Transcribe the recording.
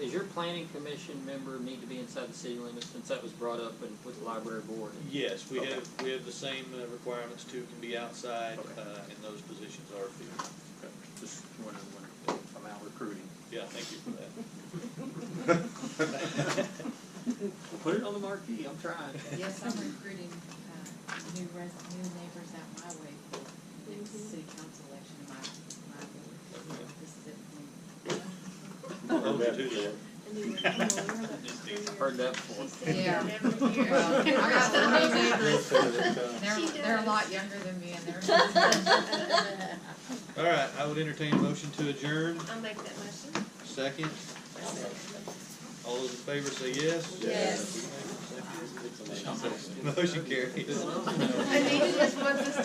does your planning commission member need to be inside the city limits, since that was brought up and with the library board? Yes, we Okay. have, we have the same uh, requirements too, can be outside, Okay. uh, and those positions are filled. Just wondering when, if I'm out recruiting. Yeah, thank you for that. Put it on the marquee, I'm trying. Yes, I'm recruiting, uh, new res, new neighbors out my way for the next city council election, in my, my board. This is it for me. Those are two that- Heard that before. Yeah. Well, I got some new neighbors. They're, they're a lot younger than me and they're. All right, I would entertain a motion to adjourn, I'll make that motion. second. All those in favor say yes? Yes. Motion carries. Anita just wants us